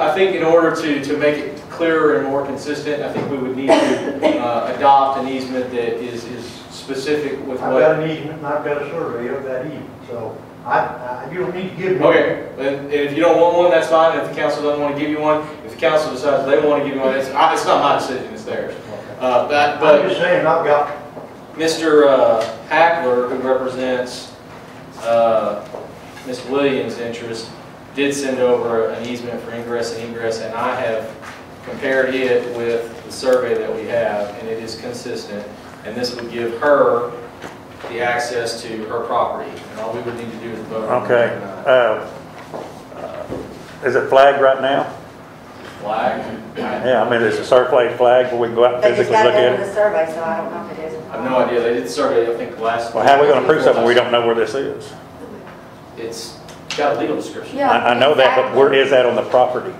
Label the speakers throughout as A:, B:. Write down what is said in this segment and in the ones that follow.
A: I think in order to, to make it clearer and more consistent, I think we would need to uh, adopt an easement that is, is specific with
B: I've
A: what.
B: got an easement and I've got a survey of that easement, so I, I, you don't need to give me.
A: Okay, and and if you don't want one, that's fine, if the council doesn't want to give you one, if the council decides they want to give you one, it's, I- it's not my decision, it's theirs. Uh, That, but.
B: I'm just saying, I've got,
A: Mr. uh, Hackler, who represents uh, Ms. Williams' interest, did send over an easement for ingress and egress, and I have compared it with the survey that we have, and it is consistent. And this would give her the access to her property, and all we would need to do is vote. on it
C: Okay,
A: tonight.
C: uh, is it flagged right now?
A: Flag?
C: Yeah, I mean, it's a circulated flag, where we can go out and
D: They just
C: physically
D: got
C: look
D: it
C: at
D: in
C: it.
D: the survey, so I don't know if it is.
A: I have no idea, they did the survey, I think, last.
C: Well, how are we gonna prove something we don't know where this is?
A: It's got a legal description.
D: Yeah.
C: I, I know that, but where is that on the property?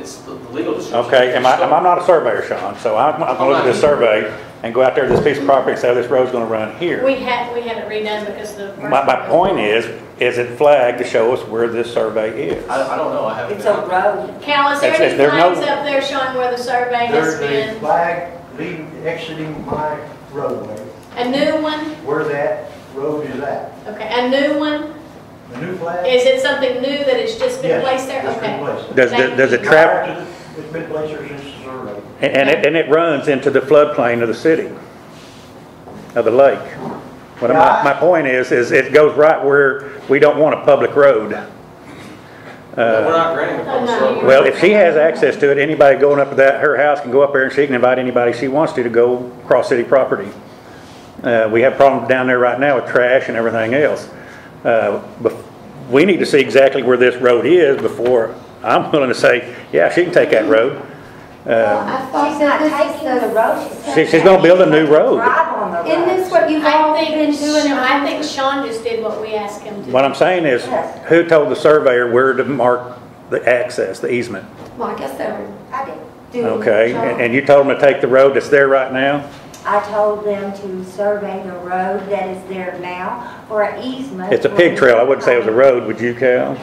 A: It's the the legal description.
C: Okay, am I, am I not a surveyor, Sean, so I'm, I'm gonna look at this survey and go out there to this piece of property and say, oh, this road's gonna run here.
E: We had, we had it redone because the. first
C: My, my
E: one was-
C: point is, is it flagged to show us where this survey is?
A: I, I don't know, I haven't.
D: It's
A: been-
D: a road.
E: Cal, is there
C: That's it,
E: any
C: there are no-
E: flags up there showing where the survey has
B: there's a
E: been?
B: flag leaving, exiting my roadway,
E: A new one?
B: where that road is at.
E: Okay, a new one?
B: The new flag?
E: Is it something new that has just been
B: Yes,
E: placed there?
B: it's been
E: Okay.
B: placed there.
C: Does, does it travel?
B: Prior to the- It's been placed there since the survey.
C: And- And it, and it runs into the floodplain of the city, of the lake. What my, my point is, is it goes right where we don't want a public road.
A: No, We're
C: Uh,
A: not granting a
E: I'm
A: public
E: not
A: roadway.
C: Well, if she has access to it, anybody going up to that, her house can go up there and she can invite anybody she wants to to go cross city property. Uh, we have problems down there right now with trash and everything else. Uh, bef- we need to see exactly where this road is before I'm willing to say, yeah, she can take that road. Uh,
F: Well, I thought
D: She's not
F: this is
D: taking the road.
F: She-
D: saying
C: she's gonna build a new road.
D: Drive on the
F: Isn't this
D: road.
F: what you've all
E: I
F: been
E: think,
F: doing?
E: Sean- I think Sean just did what we asked him to.
C: What I'm saying is, who told the surveyor where to mark the access, the easement?
F: Well, I guess they were,
D: I didn't do
C: Okay,
D: the
C: and
D: job.
C: and you told them to take the road that's there right now?
D: I told them to survey the road that is there now for an easement.
C: It's a pig trail, I wouldn't say it was a road, would you, Cal?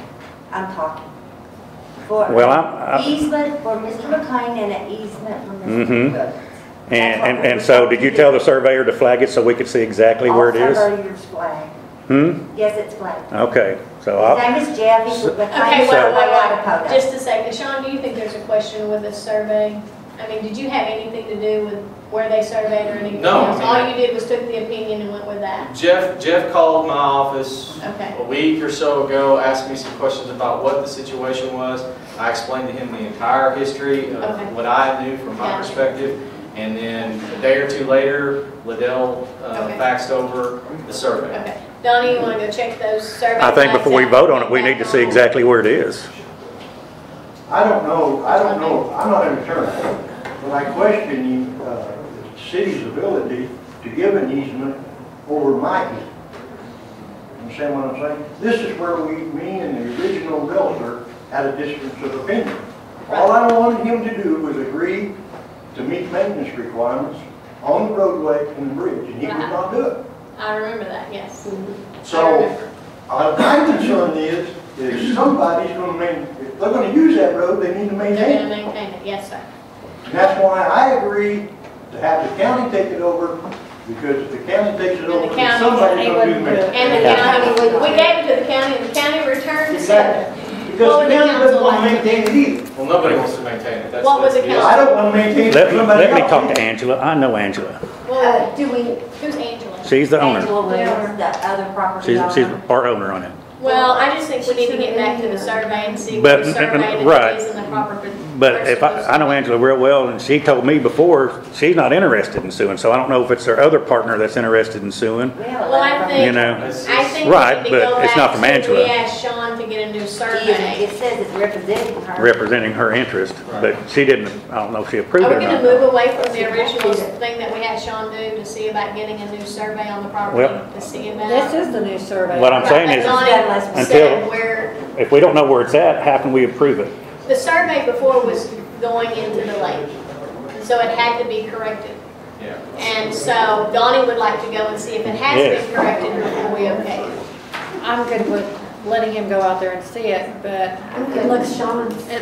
D: I'm talking. For
C: Well, I'm- I-
D: Easement for Mr. McLean and an easement for Mr.
C: Mhm.
D: Cook.
C: And, and and so, did you tell the surveyor to flag it so we could see exactly where it
D: Also,
C: is?
D: your flag.
C: Hmm?
D: Yes, it's flag.
C: Okay, so
D: His
C: I'll,
D: name is Jeff, he's with McLean
E: Okay, wait,
D: Survey out of
E: wait, wait,
D: Potomac.
E: just a second. Sean, do you think there's a question with the survey? I mean, did you have anything to do with where they surveyed or anything
A: No, I
E: else?
A: mean-
E: All you did was took the opinion and went with that?
A: Jeff, Jeff called my office
E: Okay,
A: a week or so ago, asked me some questions about what the situation was. I explained to him the entire history
E: Okay.
A: of what I knew from my
E: Gotcha.
A: perspective. And then a day or two later, Liddell uh,
E: Okay.
A: faxed over the survey.
E: okay. Donnie, you want to go check those survey?
C: I think
E: flags
C: before we
E: out?
C: vote on it, we need to see exactly where it is.
B: I don't know, I don't know, I'm not an attorney, but I question the, uh, the city's ability to give an easement over my easement. Understand what I'm saying? This is where we, me and the original realtor had a difference of opinion. All I wanted him to do was agree to meet maintenance requirements on the roadway and the bridge, and he would not do it.
E: I remember that, yes. I
B: So,
E: remember.
B: uh, my concern is, is somebody's gonna main, if they're gonna use that road, they need to maintain
E: They're
B: it.
E: gonna maintain it, yes, sir.
B: And that's why I agree to have the county take it over, because if the county takes it
E: the
B: over, then
E: county's
B: somebody's
D: able
B: gonna
D: to-
B: do maintenance.
E: And the county, we gave it to the county, and the county returned to Southern.
B: Because
E: Well,
B: the county
E: the
B: doesn't
E: council
B: wanna
E: likes it.
B: maintain it either.
A: Well, nobody wants to maintain it. That's
E: What was the
A: deal.
E: council-
B: I don't wanna maintain it
C: Let,
B: for somebody
C: let me
B: else.
C: talk to Angela, I know Angela,
E: Well,
D: Uh, do we,
E: who's Angela?
C: she's the owner,
D: Angela Williams, the other property
C: she's,
D: owner?
C: she's part owner on it.
E: Well, I just think we need to get back to the survey and see
C: But-
E: what survey that
C: right.
E: it is in the proper. per-
C: But if I, I know
E: person.
C: Angela real well, and she told me before, she's not interested in suing, so I don't know if it's her other partner that's interested in suing,
E: Well, I
C: you
E: think,
C: know?
A: It's-
E: I think
C: Right,
E: we need to go
C: but it's not
E: back
C: from
E: to, we
C: Angela.
E: asked Sean to get a new survey.
D: It says it's representing her.
C: representing her interest, but she didn't, I don't know if she approved
E: Are
C: it
E: we
C: or
E: gonna
C: not.
E: move away from the original thing that we had Sean do to see about getting a new survey on the property
C: Well-
E: to see about?
F: this is the new survey.
C: What I'm saying is,
E: Donnie
C: Until-
E: said where,
C: if we don't know where it's at, how can we approve it?
E: the survey before was going into the lake, so it had to be corrected.
A: Yeah.
E: And so Donnie would like to go and see if it has
C: Yes.
E: been corrected before we okay it.
F: I'm good with letting him go out there and see it, but
D: I'm
F: it
D: good with
F: looks,
D: Sean's.
F: it